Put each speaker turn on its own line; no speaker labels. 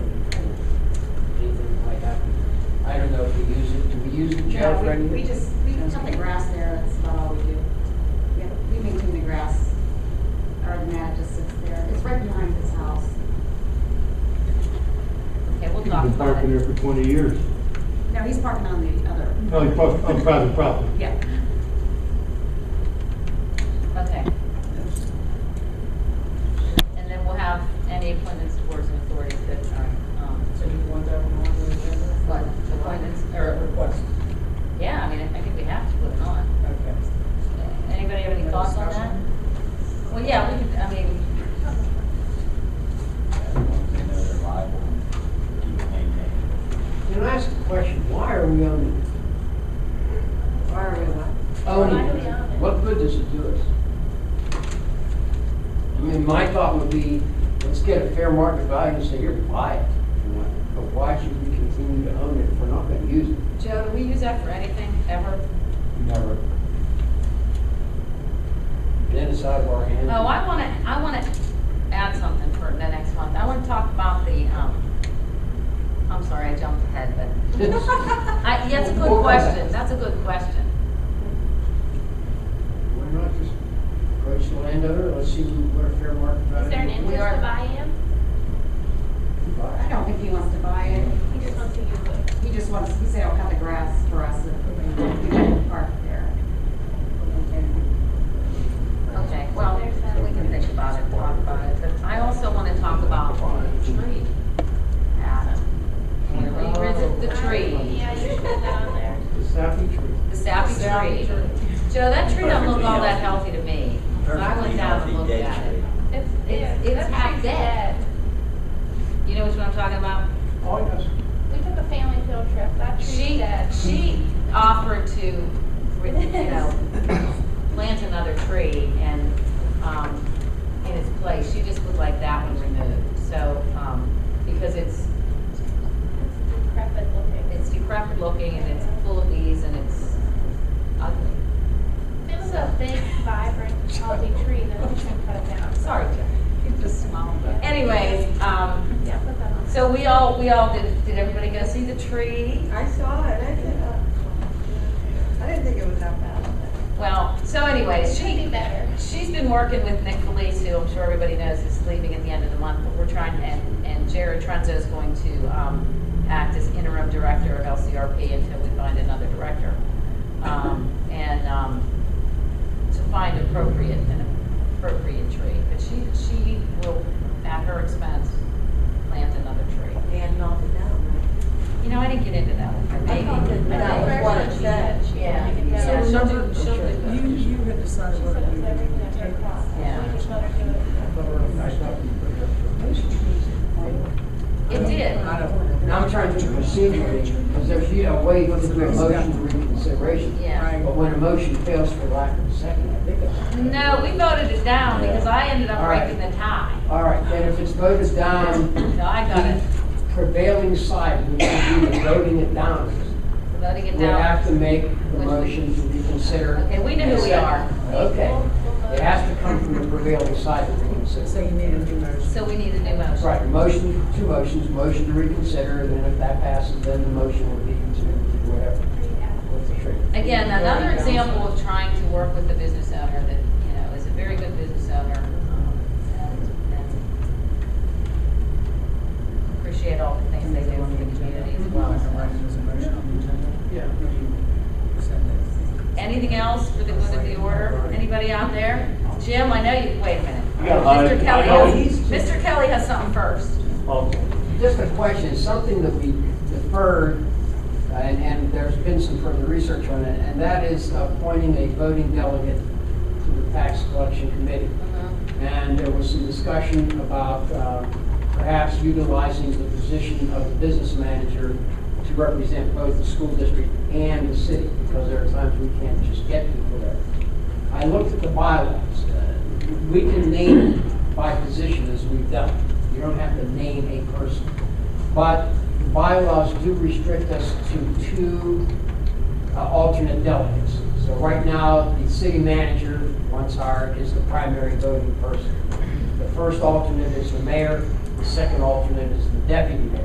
use the
No,
jail for
we, we
anything?
just, we cut the grass there, that's about all we do. Yeah, we maintain the grass, or the mat just sits there, it's right behind his house.
Okay, we'll
He's
talk
been
about
parking there
it.
for twenty years.
No, he's parking on the other,
No, he's parked on private property.
yeah.
Okay. And then we'll have any appointments to boards and authorities that are, um,
So you want that one on the agenda?
what, appointments,
Or
or,
request?
yeah, I mean, I think we have to put it on.
Okay.
Anybody have any thoughts on that? Well, yeah, we could, I mean,
Everyone's in there, they're liable, and keep maintaining.
Can I ask a question? Why are we on
Why are we what?
the, on
Why are we on
it?
it?
What good does it do us? I mean, my thought would be, let's get a fair market value and say, here, buy it. if you want. But why should we continue to own it if we're not gonna use it?
Joe, do we use that for anything ever?
Never.
Then it's out of our hands.
Oh, I want to, I want to add something for the next month. I want to talk about the, um, I'm sorry, I jumped ahead, but, I, yeah, it's a good question. That's a good question.
Why not just approach the landowner, let's see what a fair market value.
Is there an
is.
We
interest
are-
to buy in?
Buy
I
it.
don't think he wants to buy it,
He just wants to use it.
he just wants, he said, I'll cut the grass for us if we can park there.
Okay, well, we can think about it, talk about it, but I also want to talk about the tree, Adam. Can we revisit the tree,
Uh, Yeah, you should put that on there.
The sappy tree.
the sappy tree? Joe, that tree don't look all that healthy to me. So I went down and looked at it.
It's,
It's-
it's,
it's
that
half
tree's
dead. You know which one I'm talking about?
Oh, yes.
We took a family field trip, that tree's
She,
dead.
she offered to, you know, plant another tree and, um, in its place. She just would like that one removed, so, um, because it's,
It's decrepit looking.
it's decrepit looking and it's full of weeds and it's ugly.
It was a big, vibrant, healthy tree that we should cut down.
Sorry, Jeff. You just smiled.
Yeah.
Anyways, um,
Yeah, put that on.
so we all, we all, did, did everybody go see the tree?
I saw it, I said, oh. I didn't think it was that bad.
Well, so anyways,
It should
she,
be better.
She's been working with Nick Felice, who I'm sure everybody knows is leaving at the end of the month, but we're trying, and, and Jared Trenzo is going to, um, act as interim director of LCRP until we find another director. Um, and, um, to find appropriate, an appropriate tree, but she, she will, at her expense, plant another tree.
And melted down,
You know, I didn't get into that with her,
I
maybe.
thought that that was
think-
what it said.
Yeah,
So
yeah, she'll do, she'll do.
You, you had
She
decided
said
whether
it
you
was everything
were
that's her cross.
Yeah.
We just let her do
I
it.
thought it was nice not to put it up for-
It did.
I don't.
Now, I'm trying to procedurally, because there's you know, way to do a motion for reconsideration.
Yeah.
Right.
But when a motion fails for lack of a second, I think that's.
No, we voted it down because I ended up
All right.
breaking the tie.
All right, then if it's voted down,
No, I got it.
the prevailing side, which would be the voting it down,
We're Voting it
would have to
down.
make the
Which we-
motion to reconsider.
Okay, we know who we are.
Okay. It has to come from the prevailing side to reconsider.
So you need a new motion.
So we need a new motion.
Right, motion, two motions, motion to reconsider, and then if that passes, then the motion would be to do whatever. What's the trick?
Again, another example of trying to work with a business owner that, you know, is a very good business owner. um, and- and Appreciate all the things they do for the community as well.
There's a motion on the agenda.
Yeah.
Anything else for the good of the order? Anybody out there? Jim, I know you, wait a minute.
You got a lot of-
Mr.
I know
Kelly, has-
he's-
Mr. Kelly has something first.
Okay.
Just a question, something that we deferred, uh, and, and there's been some further research on it, and that is appointing a voting delegate to the tax collection committee. And there was some discussion about uh, perhaps utilizing the position of the business manager to represent both the school district and the city, because there are times we can't just get people there. I looked at the bylaws. Uh, We can name by position as we've done. You don't have to name a person. But the bylaws do restrict us to two uh, alternate delegates. So right now, the city manager, once hired, is the primary voting person. The first alternate is the mayor, the second alternate is the deputy mayor.